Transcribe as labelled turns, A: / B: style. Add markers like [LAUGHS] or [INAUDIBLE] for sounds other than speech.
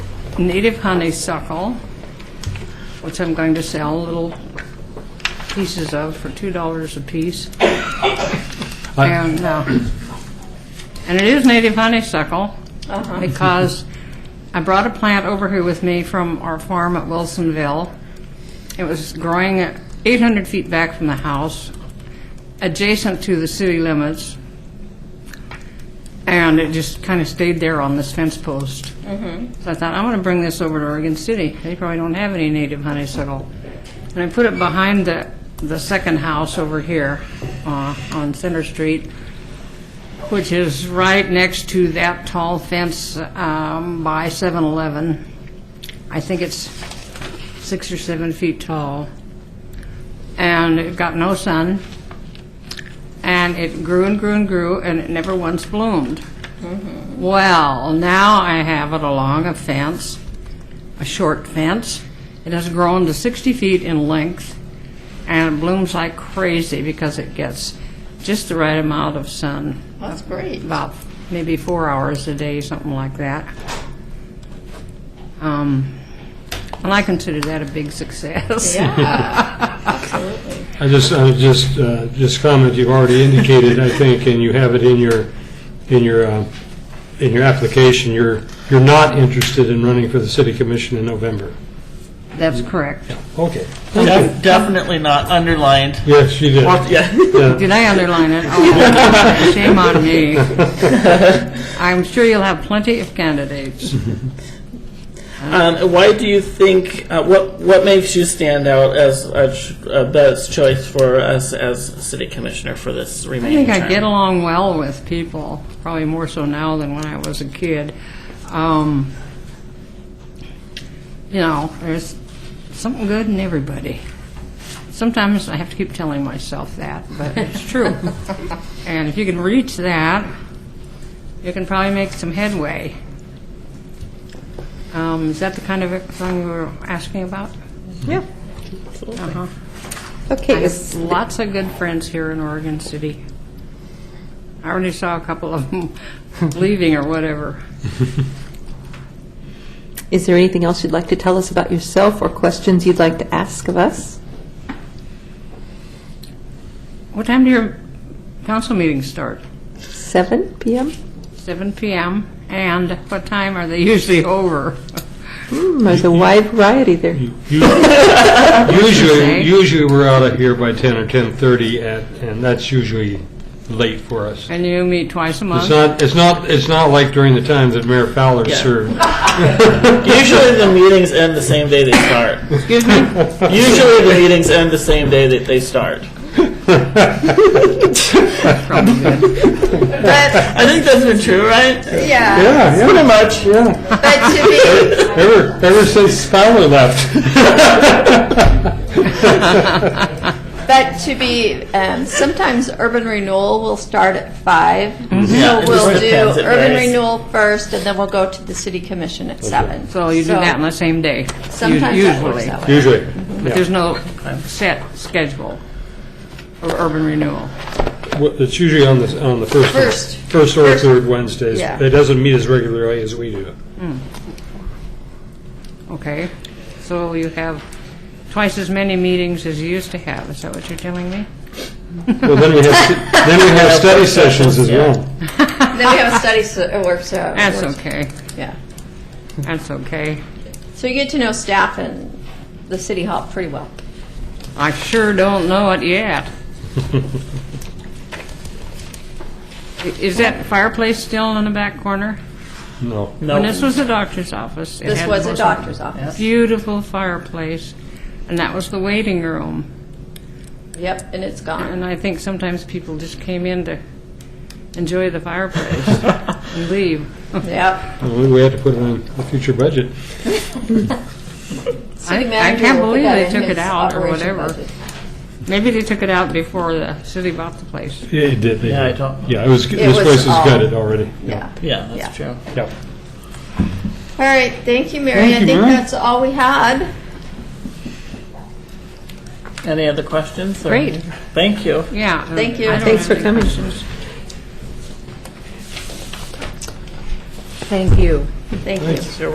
A: native honeysuckle, which I'm going to sell little pieces of for $2 apiece. And, uh, and it is native honeysuckle because I brought a plant over here with me from our farm at Wilsonville. It was growing 800 feet back from the house, adjacent to the city limits. And it just kind of stayed there on this fence post. So I thought, I'm going to bring this over to Oregon City. They probably don't have any native honeysuckle. And I put it behind the, the second house over here uh, on Center Street, which is right next to that tall fence um, by 7-Eleven. I think it's six or seven feet tall. And it got no sun. And it grew and grew and grew, and it never once bloomed. Well, now I have it along a fence, a short fence. It has grown to 60 feet in length, and it blooms like crazy because it gets just the right amount of sun,
B: That's great.
A: about maybe four hours a day, something like that. Um, And I consider that a big success.
C: I just, I would just, uh, just comment, you've already indicated, I think, and you have it in your, in your, uh, in your application, you're, you're not interested in running for the city commission in November.
A: [LAUGHS] That's correct.
C: Okay.
D: Def- Definitely not underlined.
C: Yes, you did.
D: Well, yeah.
C: Yeah.
A: Did I underline it? Oh, Shame on me. I'm sure you'll have plenty of candidates.
D: Um, why do you think? Uh, what What makes you stand out as a, ch- a best choice for us as city commissioner for this
A: I
D: remaining
A: think I
D: term?
A: get along well with people, probably more so now than when I was a kid. Um, you know, there's something good in everybody. Sometimes I have to keep telling myself that, but it's true. and if you can reach that, you can probably make some headway. Um, is that the kind of thing you were asking about?
B: Yeah.
A: Uh-huh. I
B: Okay,
A: have
B: is,
A: lots of good friends here in Oregon City. I already saw a couple of them [LAUGHS] leaving or whatever.
B: is there anything else you'd like to tell us about yourself or questions you'd like to ask of us?
A: What time do your council meetings start?
B: 7 p.m.?
A: 7 PM, and what time are they [LAUGHS] usually over?
B: Hmm, There's a wide variety there.
C: Usually, usually we're out of here by 10 or 10:30, at and that's usually late for us.
A: And you meet twice a
C: It's
A: month?
C: not, it's not, it's not like during the time that Mayor Fowler
D: Yeah.
C: served.
D: Usually the meetings end the same day they start.
A: Excuse me?
D: Usually the meetings end the same day that they start.
A: Probably good.
E: But
D: [LAUGHS] I think that's been true, right?
E: yeah,
C: Yeah, yeah. Pretty much, yeah.
E: but to me,
C: [LAUGHS] Ever, ever since Fowler left.
E: but to be, um, sometimes urban renewal will start at five.
D: Mm-hmm. Yeah,
E: So
D: it
E: we'll
D: just depends,
E: do
D: it
E: urban
D: varies.
E: renewal first, and then we'll go to the city commission at seven.
A: So you do that on the same day? u-
E: Sometimes that works
A: usually.
E: that way.
C: Usually.
A: But there's no set schedule of urban renewal?
C: Well, It's usually on the, on the first.
E: First.
C: First or third Wednesdays.
E: Yeah.
C: It doesn't meet as regularly as we do.
A: Okay, so you have twice as many meetings as you used to have, is that what you're telling me?
C: Well, then
D: [LAUGHS]
C: we have, then we have study sessions as well.
E: Then we have a study so- uh, workshop.
A: That's
E: works-
A: okay,
E: Yeah.
A: that's okay.
E: So you get to know staff and the city hall pretty well.
A: I sure don't know it
E: [LAUGHS]
A: yet. I- Is that fireplace still in the back corner?
C: No.
A: When
D: No.
A: this was the doctor's office. it
E: This
A: had
E: was a
A: most-
E: doctor's office.
A: Beautiful fireplace, and that was the waiting room.
E: Yep, and it's gone.
A: And I think sometimes people just came in to enjoy the
E: [LAUGHS]
A: fireplace and leave.
E: Yep.
C: We we had to put it on the future budget.
A: I-
E: City
A: I
E: manager
A: can't
E: will put
A: believe
E: that
A: they
E: in
A: took
E: his
A: it out or
E: operation
A: whatever.
E: budget.
A: Maybe they took it out before the city bought the place.
C: It did.
D: Yeah, I don't-
C: Yeah, it was, this
E: was
C: place has
E: all-
C: gutted already.
E: Yeah.
D: Yeah, that's true.
C: Yeah.
E: All right, thank you, Mary.
C: Thank
E: I
C: you,
E: think
C: Mary.
E: that's all we had.
D: Any other questions? or-
A: Great.
D: Thank you.
A: Yeah.
E: Thank you.
A: I don't have
B: Thanks for
A: any
B: coming.
A: questions.
E: Thank you. Thank you.
D: Sure.